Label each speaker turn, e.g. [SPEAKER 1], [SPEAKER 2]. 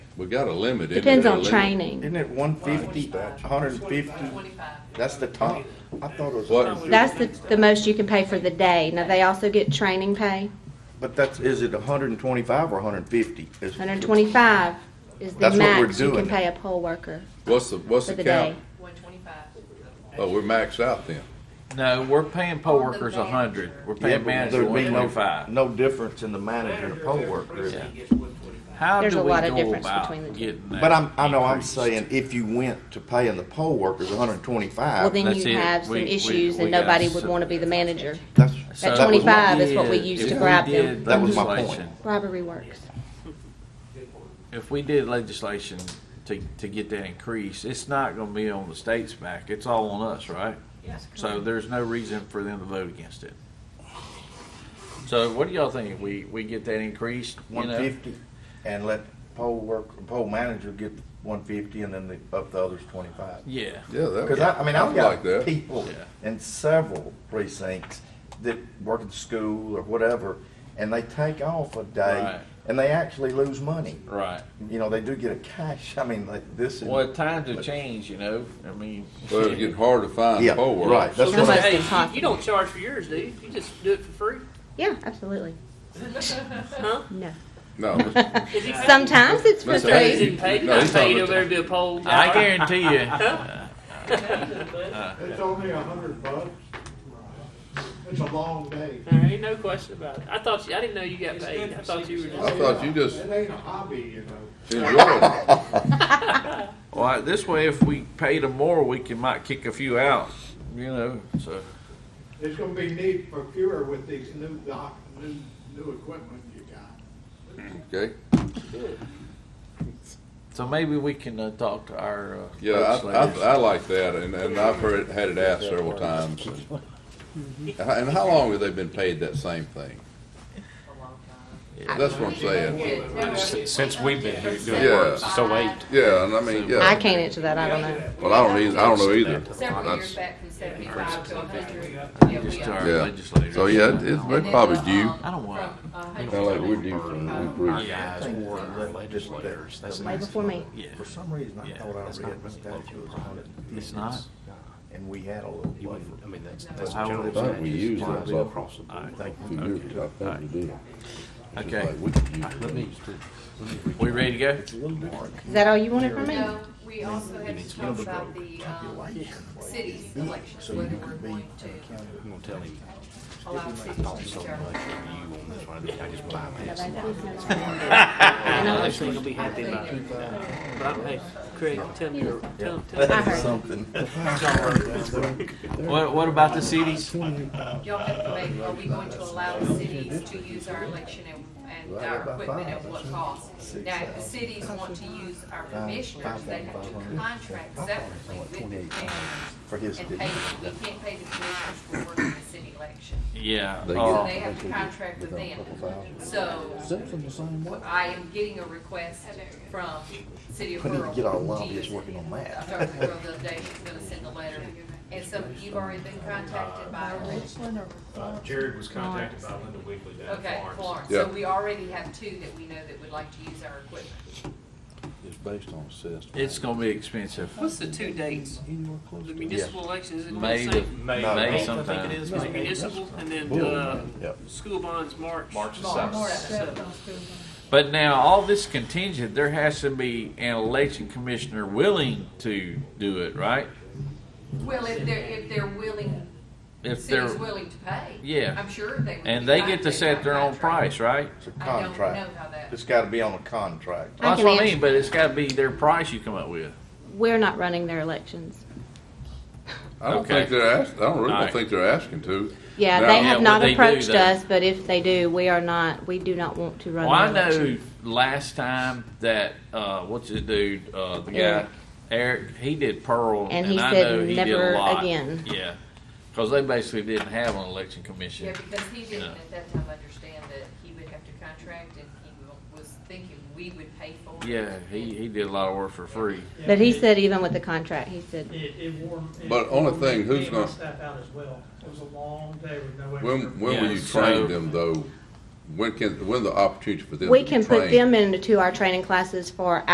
[SPEAKER 1] we got a limit. isn't
[SPEAKER 2] Depends
[SPEAKER 1] there? A
[SPEAKER 2] on
[SPEAKER 1] limit?
[SPEAKER 2] training.
[SPEAKER 3] Isn't it one fifty, hundred and fifty? That's the top. I thought it was,
[SPEAKER 1] What,
[SPEAKER 2] That's the, the most you can pay for the day. Now, they also get training pay.
[SPEAKER 3] but that's, is it hundred and twenty-five or hundred and fifty?
[SPEAKER 2] Hundred and twenty-five is the
[SPEAKER 3] That's what we're
[SPEAKER 2] max you can
[SPEAKER 3] doing.
[SPEAKER 2] pay a poll worker
[SPEAKER 1] what's the, what's
[SPEAKER 2] for
[SPEAKER 1] the
[SPEAKER 2] the day.
[SPEAKER 1] count?
[SPEAKER 4] One twenty-five.
[SPEAKER 1] Oh, we're maxed out then.
[SPEAKER 5] No, we're paying poll workers a hundred. We're
[SPEAKER 3] Yeah,
[SPEAKER 5] paying
[SPEAKER 3] but
[SPEAKER 5] manager
[SPEAKER 3] there'd
[SPEAKER 5] one
[SPEAKER 3] be no,
[SPEAKER 5] twenty-five.
[SPEAKER 3] no difference in the manager and the poll worker. is there?
[SPEAKER 5] How
[SPEAKER 2] There's
[SPEAKER 5] do
[SPEAKER 2] a
[SPEAKER 5] we
[SPEAKER 2] lot of
[SPEAKER 5] go
[SPEAKER 2] difference between the
[SPEAKER 5] about
[SPEAKER 2] two.
[SPEAKER 5] getting that?
[SPEAKER 3] But I'm, I know I'm
[SPEAKER 5] increased?
[SPEAKER 3] saying if you went to paying the poll workers hundred and
[SPEAKER 2] Well,
[SPEAKER 3] twenty-five,
[SPEAKER 2] then
[SPEAKER 5] That's
[SPEAKER 2] you
[SPEAKER 5] it.
[SPEAKER 2] have some
[SPEAKER 5] We- we-
[SPEAKER 2] issues
[SPEAKER 5] we
[SPEAKER 2] and
[SPEAKER 5] got
[SPEAKER 2] nobody would
[SPEAKER 5] some-
[SPEAKER 2] want to be the manager.
[SPEAKER 3] that's.
[SPEAKER 5] So
[SPEAKER 2] At
[SPEAKER 3] that was my-
[SPEAKER 2] 25 is what we
[SPEAKER 5] did-
[SPEAKER 2] used to
[SPEAKER 5] if we
[SPEAKER 2] grab them.
[SPEAKER 5] did
[SPEAKER 3] That was my
[SPEAKER 5] legislation-
[SPEAKER 2] Robbery works.
[SPEAKER 5] If we did legislation to, to get that increase, it's not gonna be on the state's back. It's all on us, right?
[SPEAKER 4] Yes.
[SPEAKER 5] So there's no reason for them to vote against it. So what do y'all think? We, we get that increased, you
[SPEAKER 3] one
[SPEAKER 5] know?
[SPEAKER 3] fifty, and let poll work, poll manager get one fifty, and then the, up the others twenty-five.
[SPEAKER 5] Yeah.
[SPEAKER 1] Yeah, that
[SPEAKER 3] Because I, I mean, I've
[SPEAKER 1] I'd like
[SPEAKER 3] got
[SPEAKER 1] that.
[SPEAKER 3] people
[SPEAKER 5] Yeah.
[SPEAKER 3] in several precincts that work at school or whatever, and they take off a
[SPEAKER 5] Right.
[SPEAKER 3] day, and they actually lose money.
[SPEAKER 5] Right.
[SPEAKER 3] You know, they do get a cash, I mean, like this is.
[SPEAKER 5] Well, times have changed, you know, I mean.
[SPEAKER 1] Well, it's getting hard to find
[SPEAKER 3] Yeah,
[SPEAKER 1] poll workers.
[SPEAKER 3] right, that's
[SPEAKER 2] How
[SPEAKER 3] what
[SPEAKER 2] much
[SPEAKER 3] I,
[SPEAKER 6] Hey,
[SPEAKER 2] does it
[SPEAKER 6] you,
[SPEAKER 2] cost?
[SPEAKER 6] you don't charge for yours, do you? You just do it for free?
[SPEAKER 2] Yeah, absolutely.
[SPEAKER 6] Huh?
[SPEAKER 2] No.
[SPEAKER 1] No,
[SPEAKER 6] Is he paid?
[SPEAKER 2] Sometimes it's for
[SPEAKER 1] That's
[SPEAKER 6] Is
[SPEAKER 1] right.
[SPEAKER 2] free.
[SPEAKER 6] he paid?
[SPEAKER 1] No,
[SPEAKER 6] No,
[SPEAKER 1] he's
[SPEAKER 6] he's
[SPEAKER 1] talking
[SPEAKER 6] paid over there to do a poll.
[SPEAKER 5] I guarantee you,
[SPEAKER 7] It's only a hundred bucks. It's a long day.
[SPEAKER 6] There ain't no question about it. I thought you, I didn't know you got paid. I thought you were
[SPEAKER 1] I
[SPEAKER 6] just.
[SPEAKER 1] thought you just
[SPEAKER 7] It ain't a hobby, you know.
[SPEAKER 1] enjoyed it.
[SPEAKER 5] well, this way, if we pay them more, we can might kick a few out, you know, so.
[SPEAKER 7] There's gonna be need for fewer with these new doc, new, new equipment you got.
[SPEAKER 1] Okay,
[SPEAKER 5] So maybe we can uh, talk to our. Uh,
[SPEAKER 1] yeah, I, I,
[SPEAKER 5] legislators.
[SPEAKER 1] I like that, and, and I've heard, had it asked several times. And how- and how long have they been paid that same thing? That's what I'm saying.
[SPEAKER 8] Since we've been here doing
[SPEAKER 1] Yeah.
[SPEAKER 8] work, so eight.
[SPEAKER 1] Yeah, and I mean,
[SPEAKER 2] I
[SPEAKER 1] yeah,
[SPEAKER 2] can't answer that. I don't know.
[SPEAKER 1] well, I don't either, I don't know either.
[SPEAKER 4] Several years
[SPEAKER 1] That's-
[SPEAKER 4] back from seventy-five to a hundred.
[SPEAKER 5] Just to our
[SPEAKER 1] Yeah.
[SPEAKER 5] legislators.
[SPEAKER 1] So, yeah, it- it's it's probably
[SPEAKER 4] um,
[SPEAKER 1] due.
[SPEAKER 5] I don't want. Oh,
[SPEAKER 8] Our guys were legislators. That's
[SPEAKER 2] Way before me.
[SPEAKER 5] Yeah,
[SPEAKER 3] for some reason, I
[SPEAKER 5] Yeah,
[SPEAKER 3] thought I
[SPEAKER 8] that's
[SPEAKER 3] read
[SPEAKER 8] not
[SPEAKER 3] that
[SPEAKER 8] what
[SPEAKER 3] statute was a hundred and fifty.
[SPEAKER 5] it's not.
[SPEAKER 3] And we had a little
[SPEAKER 8] You
[SPEAKER 3] buffer.
[SPEAKER 8] wouldn't- I mean, that's, that's.
[SPEAKER 5] How
[SPEAKER 8] general
[SPEAKER 5] would it-
[SPEAKER 8] statute.
[SPEAKER 1] used that
[SPEAKER 8] Applies
[SPEAKER 1] buffer.
[SPEAKER 8] Across the board.
[SPEAKER 5] Okay. Let me. We ready to go?
[SPEAKER 2] Is that all you wanted from me?
[SPEAKER 4] No, we also had to talk about the, um, cities elections, whether we're going to
[SPEAKER 8] I'm gonna tell him,
[SPEAKER 4] allow
[SPEAKER 8] "Not
[SPEAKER 4] cities to
[SPEAKER 8] so much
[SPEAKER 4] share.
[SPEAKER 8] of you on this one, I just bypass it."
[SPEAKER 2] I know.
[SPEAKER 6] Actually, you'll be happy about it. But I'm, hey, Craig, tell me, your- tell, tell me.
[SPEAKER 2] I heard.
[SPEAKER 5] What, what about the cities?
[SPEAKER 4] Y'all have to make, are we going to allow the cities to use our election and, and our equipment at what cost? Now, if the cities want to use our commissioners, they have to contract separately with the commissioners
[SPEAKER 3] For his,
[SPEAKER 4] and pay, them. we can't pay the commissioners for working the city election.
[SPEAKER 5] Yeah.
[SPEAKER 8] They
[SPEAKER 4] So
[SPEAKER 5] uh,
[SPEAKER 4] they have to contract with them. So I am getting a request from City of
[SPEAKER 3] We need to
[SPEAKER 4] Pearl.
[SPEAKER 3] get our
[SPEAKER 4] to
[SPEAKER 3] lobbyists
[SPEAKER 4] use
[SPEAKER 3] working on that.
[SPEAKER 4] I talked to Pearl the other day, she's gonna send a letter. And so you've already been contacted by her?
[SPEAKER 9] Uh, Jared was contacted by Linda Weekly down in
[SPEAKER 4] Okay,
[SPEAKER 9] Florence.
[SPEAKER 4] Florence,
[SPEAKER 1] Yeah.
[SPEAKER 4] so we already have two that we know that would like to use our equipment.
[SPEAKER 1] It's based on assessment.
[SPEAKER 5] It's gonna be expensive.
[SPEAKER 6] What's the two dates? The municipal elections in
[SPEAKER 5] May
[SPEAKER 6] May,
[SPEAKER 9] May
[SPEAKER 3] No,
[SPEAKER 5] May
[SPEAKER 9] eighth, I
[SPEAKER 5] sometime.
[SPEAKER 9] think it is.
[SPEAKER 6] is municipal, and then, uh,
[SPEAKER 3] Yep.
[SPEAKER 6] school bonds, March.
[SPEAKER 9] March the
[SPEAKER 4] March
[SPEAKER 9] seventh.
[SPEAKER 4] seventh.
[SPEAKER 5] But now, all this contingent, there has to be an election commissioner willing to do it, right?
[SPEAKER 4] Well, if they're, if they're willing,
[SPEAKER 5] If they're,
[SPEAKER 4] city's willing to pay.
[SPEAKER 5] Yeah.
[SPEAKER 4] I'm sure they would.
[SPEAKER 5] and
[SPEAKER 4] be
[SPEAKER 5] they
[SPEAKER 4] fine
[SPEAKER 5] get to
[SPEAKER 4] if
[SPEAKER 5] set
[SPEAKER 4] they
[SPEAKER 5] their own
[SPEAKER 4] contract.
[SPEAKER 5] price, right?
[SPEAKER 3] it's a
[SPEAKER 4] I don't know
[SPEAKER 3] contract.
[SPEAKER 4] how that,
[SPEAKER 3] It's gotta be on a contract.
[SPEAKER 2] I
[SPEAKER 5] That's
[SPEAKER 2] can
[SPEAKER 5] what I
[SPEAKER 2] answer.
[SPEAKER 5] mean, but it's gotta be their price you come up with.
[SPEAKER 2] We're not running their elections.
[SPEAKER 1] I don't
[SPEAKER 5] Okay.
[SPEAKER 1] think they're asked, I don't really
[SPEAKER 5] Alright.
[SPEAKER 1] think they're asking to.
[SPEAKER 2] Yeah,
[SPEAKER 1] Now-
[SPEAKER 2] they
[SPEAKER 5] Yeah,
[SPEAKER 2] have
[SPEAKER 5] well,
[SPEAKER 2] not
[SPEAKER 5] they do
[SPEAKER 2] approached
[SPEAKER 5] that.
[SPEAKER 2] us, but if they do, we are not, we do not want to run
[SPEAKER 5] Well, I
[SPEAKER 2] their
[SPEAKER 5] know
[SPEAKER 2] election.
[SPEAKER 5] last time that, uh, what's his dude, uh, the guy,
[SPEAKER 2] Eric.
[SPEAKER 5] Eric, he did Pearl,
[SPEAKER 2] And
[SPEAKER 5] and
[SPEAKER 2] he
[SPEAKER 5] I
[SPEAKER 2] said
[SPEAKER 5] know he did
[SPEAKER 2] never
[SPEAKER 5] a lot.
[SPEAKER 2] again.
[SPEAKER 5] Yeah, because they basically didn't have an election
[SPEAKER 4] yeah,
[SPEAKER 5] commission.
[SPEAKER 4] because he didn't
[SPEAKER 5] Yeah.
[SPEAKER 4] at that time understand that he would have to contract and he wa- was thinking we would pay for it.
[SPEAKER 5] Yeah, he, he did a lot of work for free.
[SPEAKER 2] But he said even with the contract, he said,
[SPEAKER 10] It, it wore. it
[SPEAKER 1] But only
[SPEAKER 10] wore
[SPEAKER 1] thing,
[SPEAKER 10] me-
[SPEAKER 1] who's
[SPEAKER 10] me and my
[SPEAKER 1] gonna-
[SPEAKER 10] Staff out as well. It was a long day with no extra.
[SPEAKER 1] When, when will
[SPEAKER 5] Yeah,
[SPEAKER 1] you
[SPEAKER 5] so-
[SPEAKER 1] train them though? When can, when the opportunity for them to be
[SPEAKER 2] we can
[SPEAKER 1] trained?
[SPEAKER 2] put them into our training classes for